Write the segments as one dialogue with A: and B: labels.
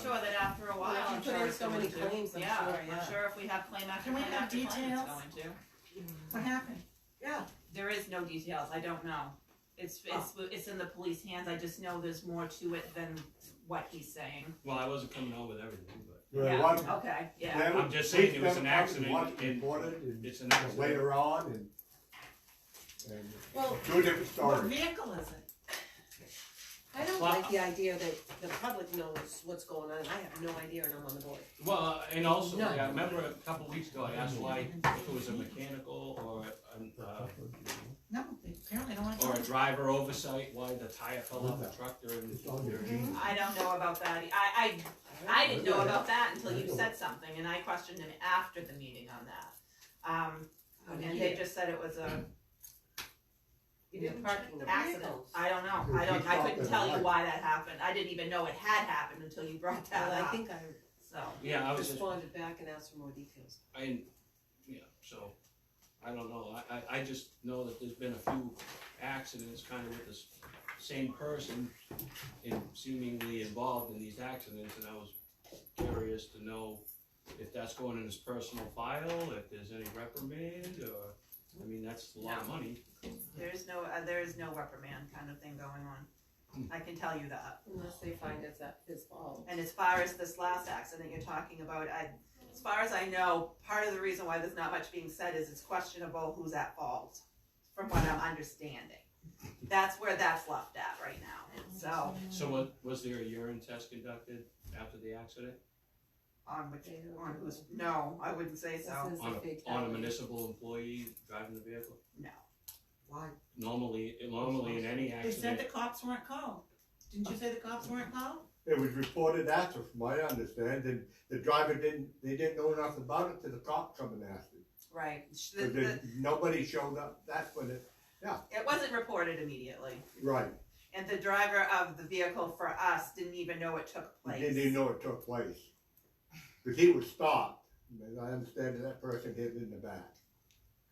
A: of it after a while,
B: if you
A: I'm
B: put
A: sure
B: in
A: it's
B: so
A: going
B: many
A: to.
B: claims, I'm sure, yeah.
A: I'm sure if we have claim after
C: Can we
A: claim
C: have
A: after claim, it's going to.
C: details? What happened?
B: Yeah,
A: There is no details, I don't know. It's, it's, it's in the police hands, I just know there's more to it than what he's saying.
D: Well, I wasn't coming home with everything, but
E: Right,
A: Yeah,
E: one-
A: Okay, yeah,
E: them-
D: I'm just saying it was
E: them
D: an
E: come and
D: accident
E: watch it
D: and-
E: Reported and
D: it's an accident.
E: later on and, and
B: well,
E: two different
C: What
E: stories.
C: vehicle is it?
B: I don't
D: Well-
B: like the idea that the public knows what's going on, I have no idea and I'm on the board.
D: Well, uh, and also,
B: No.
D: I remember a couple weeks ago, I asked why, if it was a mechanical or, an, uh,
C: No, they apparently don't want to.
D: or
C: talk
D: a
C: about
D: driver oversight, why the tire fell off the truck during.
E: It's on your jeans.
A: I don't know about that, I, I I didn't know about that until you said something, and I questioned him after the meeting on that. Um, and they just said it was a
B: You didn't check the
A: accident,
B: vehicles.
A: I don't know, I don't, I couldn't tell you why that happened, I didn't even know it had happened until you brought that
B: Well, I
A: up,
B: think I
A: so.
D: Yeah, I was just,
B: responded back and asked for more details.
D: I, yeah, so, I don't know, I, I, I just know that there's been a few accidents kind of with this same person in seemingly involved in these accidents, and I was curious to know if that's going in his personal file, if there's any reprimand, or, I mean, that's a lot of money.
A: There is no, uh, there is no reprimand kind of thing going on, I can tell you that.
B: Unless they find it's that his fault.
A: And as far as this last accident you're talking about, I, as far as I know, part of the reason why there's not much being said is it's questionable who's at fault, from what I'm understanding. That's where that's left at right now, so,
D: So what, was there a urine test conducted after the accident?
A: on which, on who's, no, I wouldn't say so,
B: This is
D: On
B: a big
D: a, on a
B: topic.
D: municipal employee driving the vehicle?
A: no.
B: Why?
D: Normally, normally in any
C: it. They said
D: accident,
C: the cops weren't called. Didn't you say the cops weren't called?
E: It was reported after, from what I understand, and the driver didn't, they didn't know enough about it till the cop come and asked him.
A: Right, The-
E: But
A: the-
E: then nobody showed up, that's when it,
A: it wasn't reported immediately,
E: right,
A: and the driver of the vehicle for us didn't even know it took
E: he
A: place.
E: didn't even know it took place. Cause he was stopped, and I understand that person hit in the back,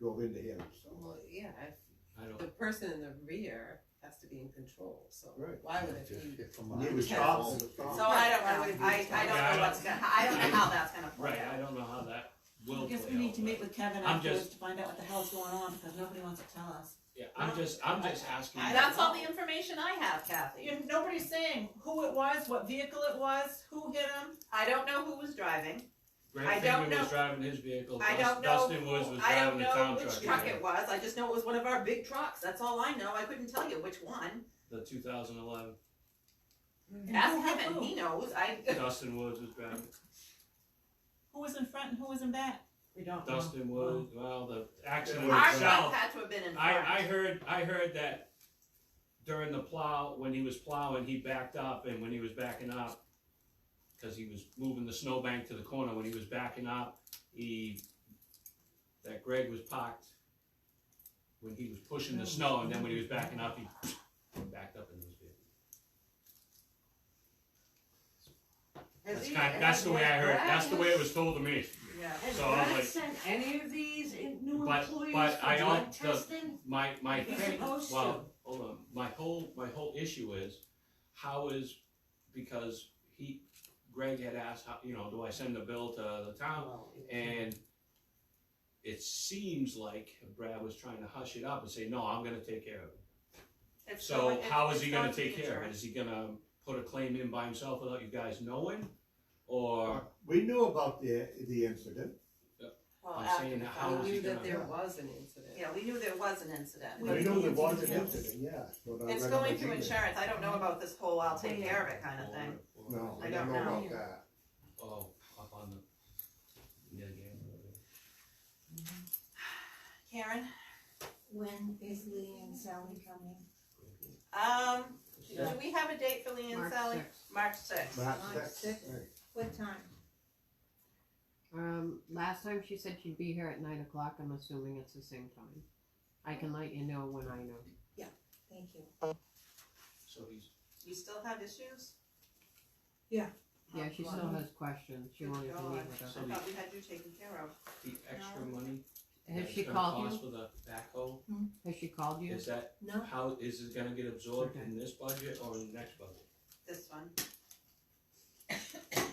E: drove into him, so.
B: Well, yeah, if
D: I don't.
B: the person in the rear has to be in control, so
E: Right.
B: why would it be?
E: He was stopped, he was stopped.
A: So I
B: Why would
A: don't
B: it
A: know, I,
B: be-
A: I
D: Yeah, I
A: don't know
D: don't-
A: what's gonna, I don't know how that's gonna play
D: Right,
A: out.
D: I don't know how that will
C: I
D: play
C: guess we need
D: out,
C: to meet
D: but-
C: with Kevin
D: I'm
C: afterwards
D: just-
C: to find out what the hell's going on, because nobody wants to tell us.
D: Yeah, I'm just, I'm just asking.
C: I-
A: That's all the information I have, Kathy.
C: You, nobody's saying who it was, what vehicle it was, who hit him.
A: I don't know who was driving. I
D: Greg
A: don't
D: Finger was
A: know-
D: driving his vehicle,
A: I don't
D: Dust-
A: know-
D: Dustin Woods was
A: I
D: driving
A: don't
D: the
A: know
D: town
A: which
D: truck.
A: truck
D: yeah.
A: it was. I just know it was one of our big trucks. That's all I know. I couldn't tell you which one.
D: The two thousand eleven,
C: And who
A: Ask
C: hit
A: him and
C: who.
A: he knows. I,
D: Dustin Woods was driving,
C: Who was in front and who was in back?
B: We don't
D: Dustin Woods, well, the accident
E: Our
A: our
D: itself.
A: truck had to have been in front.
D: I, I heard, I heard that during the plow, when he was plowing, he backed up, and when he was backing up, cause he was moving the snowbank to the corner, when he was backing up, he, that Greg was parked when he was pushing the snow, and then when he was backing up, he backed up into his vehicle.
F: Has
D: That's
F: he-
D: kind, that's the way I heard, it. that's the way it was told to me.
A: Yeah.
F: Has
D: so I was
F: Brad
D: like-
F: sent any of these in- new
D: But-
F: employees
D: but
F: for
D: I
F: drug
D: don't- the-
F: testing?
D: My, my
F: He's
D: thing,
F: supposed
D: well, hold on, my whole, my whole issue is, how is, because he, Greg had asked, how, you know, do I send the bill to the town? And it seems like Brad was trying to hush it up and say, no, I'm gonna take care of it.
A: It's going-
D: So
A: it's-
D: how is he
A: it's
D: gonna
A: going to
D: take
A: the
D: care of it?
A: insurance.
D: Is he gonna put a claim in by himself without you guys knowing? Or,
E: We knew about the, the incident,
A: Well,
D: I'm
A: after
D: saying
A: the
D: how
B: We
A: fact.
D: is he
B: knew that
D: gonna-
B: there was an incident.
A: Yeah, we knew there was an incident.
C: We
E: we
A: but
E: knew there
C: it's-
E: was an
C: yes.
E: incident, yeah. that's what I
A: It's
E: read on
A: going
E: the
A: through
E: email.
A: insurance. I don't know about this whole I'll take care of it kind of thing.
D: or-
E: No,
A: I
E: I
A: don't
E: don't know
A: know.
E: about that.
D: Oh, up on the, yeah, yeah.
A: Karen?
G: When is Lee and Sally coming?
A: Um, do
B: Yeah.
A: we have a date for Lee and
F: March
A: Sally?
F: 6th.
A: March sixth.
E: That's,
B: Five,
E: that's,
B: six.
E: right.
G: What time?
F: Um, last time she said she'd be here at nine o'clock, I'm assuming it's the same time. I can let you know when I know.
G: Thank you.
D: So he's,
A: You still have issues?
F: Yeah, she
A: Oh,
F: still has questions, she
A: Good
F: wanted to meet
A: God.
F: with us.
A: I thought we had you taken care of.
D: the extra money
F: Has
D: that
F: she
D: it's gonna
F: called
D: cost
F: you,
D: for the backhoe,
F: has she called you?
D: is that,
G: No,
D: how, is it gonna get absorbed in this budget or in the next budget?
A: This one.